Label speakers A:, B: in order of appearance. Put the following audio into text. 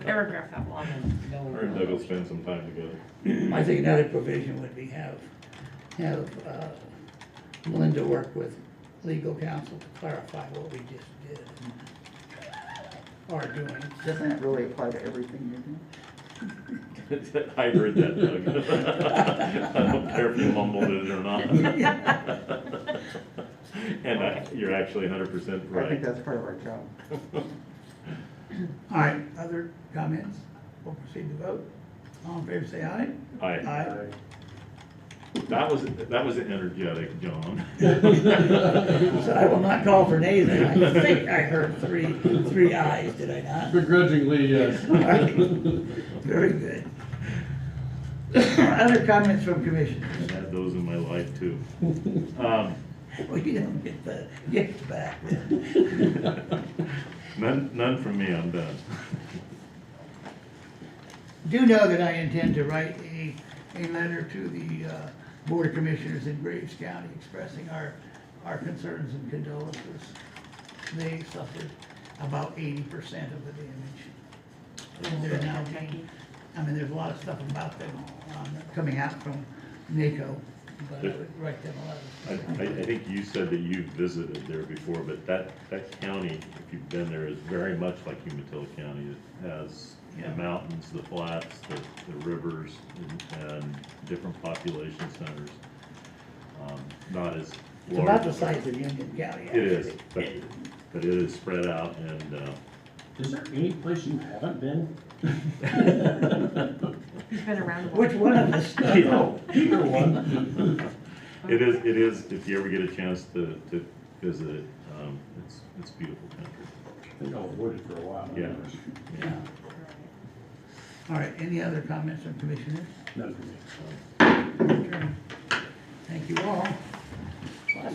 A: paragraph that long and no.
B: Or Doug will spend some time together.
C: I think another provision would be have, have uh, Linda work with legal counsel to clarify what we just did. Are doing,
D: Doesn't that really apply to everything you do?
B: I heard that, Doug. I don't care if you mumbled it or not. And I- you're actually hundred percent
D: I think
B: right.
D: that's part of our job.
C: all right, other comments? We'll proceed to vote. All in favor, say aye.
B: I,
C: Aye.
B: that was, that was energetic, John.
C: So I will not call for nays, and I think I heard three, three ayes, did I not?
E: Begrudgingly, yes.
C: All right. Very good. Other comments from commissioners?
B: I've had those in my life too. Um,
C: Well, you don't get the gift back.
B: None, none from me, I'm done.
C: Do know that I intend to write a, a letter to the uh, Board of Commissioners in Graves County expressing our, our concerns and condolences. They suffered about eighty percent of the damage. And they're now being, I mean, there's a lot of stuff about them um, coming out from NACO, but I would write them a letter.
B: I, I, I think you said that you visited there before, but that, that county, if you've been there, is very much like Umatilla County. It has the
C: Yeah.
B: mountains, the flats, the, the rivers, and, and different population centers. Um, Not as
C: It's about
B: large.
C: the size of Union County.
B: It is,
C: actually.
B: but, but it is spread out and, uh,
E: Is there any place you haven't been?
A: He's been around a while.
C: Which one of us?
B: Yeah.
E: Either one.
B: it is, it is, if you ever get a chance to, to visit it, um, it's, it's beautiful country.
E: I think I avoided for a while.
B: Yeah.
C: Yeah. All right, any other comments from commissioners?
E: None for me.
C: Adjourn.